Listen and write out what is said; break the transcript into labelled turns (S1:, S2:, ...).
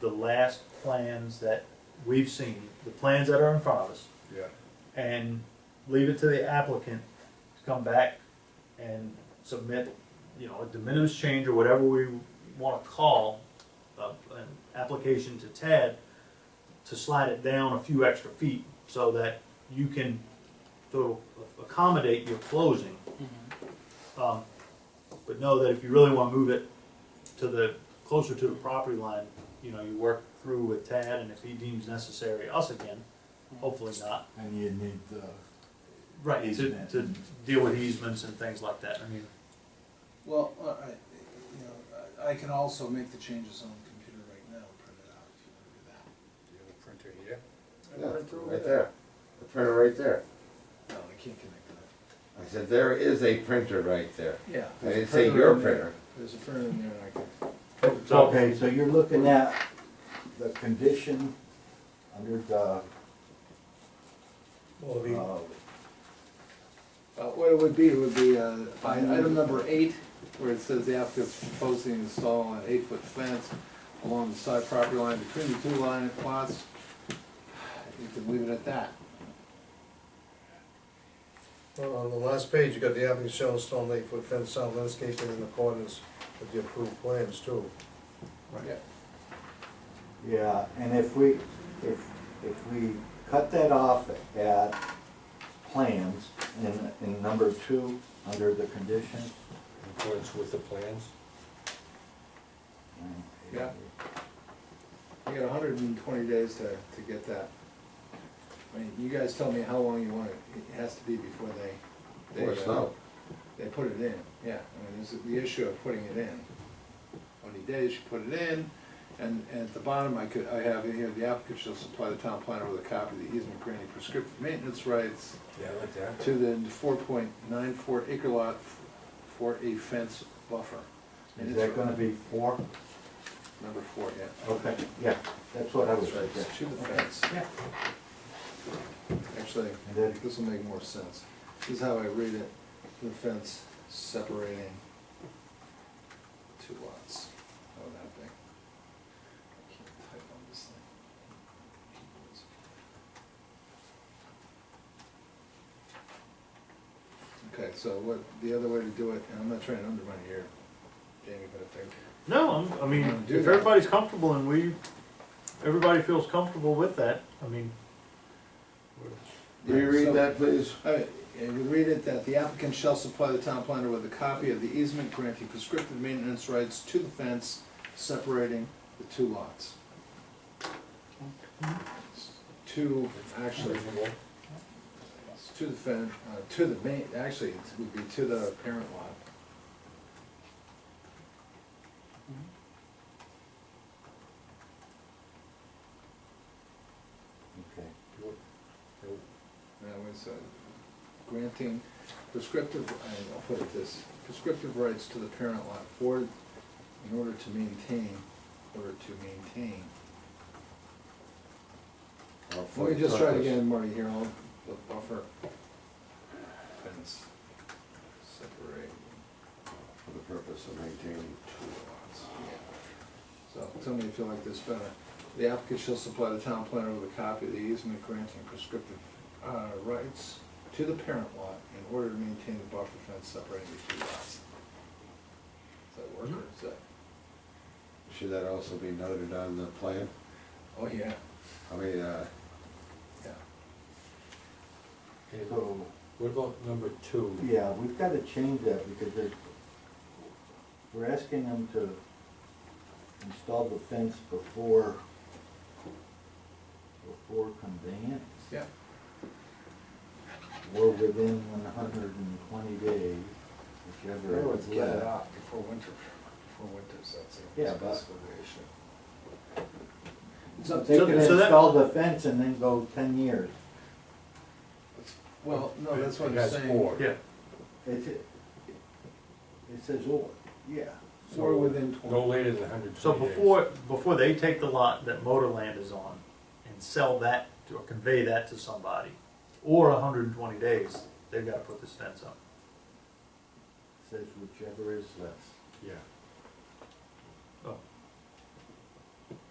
S1: the last plans that we've seen, the plans that are in front of us,
S2: Yeah,
S1: and leave it to the applicant to come back and submit, you know, a de minimis change or whatever we wanna call, uh, an application to Tad to slide it down a few extra feet so that you can to accommodate your closing. Um, But know that if you really wanna move it to the, closer to the property line, you know, you work through with Tad and if he deems necessary, us again, hopefully not.
S2: and you need the,
S1: Right, to,
S2: Easement.
S1: to deal with easements and things like that, I mean,
S3: Well, uh, I, you know, I I can also make the changes on the computer right now, and print it out if you wanna do that.
S4: Do you have a printer here?
S5: Yeah, right there, the printer right there.
S3: No, I can't connect that.
S5: I said, there is a printer right there.
S3: Yeah.
S5: I
S3: there's a
S5: didn't say your
S3: in there.
S5: printer.
S3: There's a printer in there, and I can.
S1: so,
S2: okay, so you're looking at the condition under the,
S4: Well,
S2: uh,
S3: Uh, what it would be, it would be, uh, by item number eight, where it says the applicant's proposing to install an eight-foot fence along the side property line between the two line plots. You can leave it at that.
S4: On the last page, you got the avenue shell and stone lake foot fence sound landscaping in accordance with the approved plans too.
S3: Yeah.
S2: yeah, and if we, if, if we cut that off at plans in, in number two, under the conditions.
S4: In accordance with the plans?
S2: um,
S3: Yeah. You got hundred and twenty days to, to get that. I mean, you guys tell me how long you want it, it has to be before they. they,
S5: Or
S3: uh,
S5: snow.
S3: They put it in, yeah, I mean, this is the issue of putting it in. How many days you put it in, and, and at the bottom, I could, I have in here, the applicant shall supply the town planner with a copy of the easement granting prescriptive maintenance rights
S4: Yeah, like that.
S3: to the four point nine four acre lot for a fence buffer.
S2: Is that gonna be four?
S3: Number four, yeah.
S2: Okay, yeah, that's what I was
S3: Right,
S2: thinking.
S3: it's To the fence.
S2: Yeah.
S3: Actually,
S2: And then-
S3: this will make more sense. This is how I read it, the fence separating two lots. Oh, that big. I can't type on this thing. Okay, so what, the other way to do it, and I'm not trying to undermine your, Jamie, but if I,
S1: no, I'm- I mean,
S3: Wanna do
S1: if
S3: that.
S1: everybody's comfortable and we, everybody feels comfortable with that, I mean,
S3: Yeah, so-
S5: Reread that, please.
S3: All right, and we read it that the applicant shall supply the town planner with a copy of the easement granting prescriptive maintenance rights to the fence separating the two lots. To, actually, it's to the fen, uh, to the main, actually, it would be to the parent lot.
S2: Okay.
S3: That was uh, granting prescriptive, I- I'll put it this, prescriptive rights to the parent lot for, in order to maintain, order to maintain Let me just try it again, Marty, here, I'll, the buffer fence separate
S5: For the purpose of maintaining.
S3: two lots. So, tell me if you like this better. The applicant shall supply the town planner with a copy of the easement granting prescriptive, uh, rights to the parent lot in order to maintain the buffer fence separating the two lots. Does that work, or is that,
S5: Should that also be noted on the plan?
S3: oh, yeah,
S5: I mean, uh,
S3: yeah.
S2: So,
S4: What about number two?
S2: yeah, we've gotta change that because they're, we're asking them to install the fence before, before conveyance
S3: Yeah.
S2: or within one hundred and twenty days, whichever is left.
S3: out before winter, before winter sets in.
S2: Yeah, but-
S3: It's up to
S2: They
S1: So-
S2: can
S1: so that-
S2: install the fence and then go ten years.
S3: Well, no, that's what I'm
S4: That's
S3: saying.
S4: four.
S1: yeah,
S2: It's, it says or, yeah.
S3: Or within
S4: No
S3: twenty.
S4: later than hundred
S1: so
S4: twenty days.
S1: before, before they take the lot that Motorland is on and sell that, to- or convey that to somebody, or hundred and twenty days, they've gotta put this fence up.
S2: Says whichever is left.
S4: Yeah.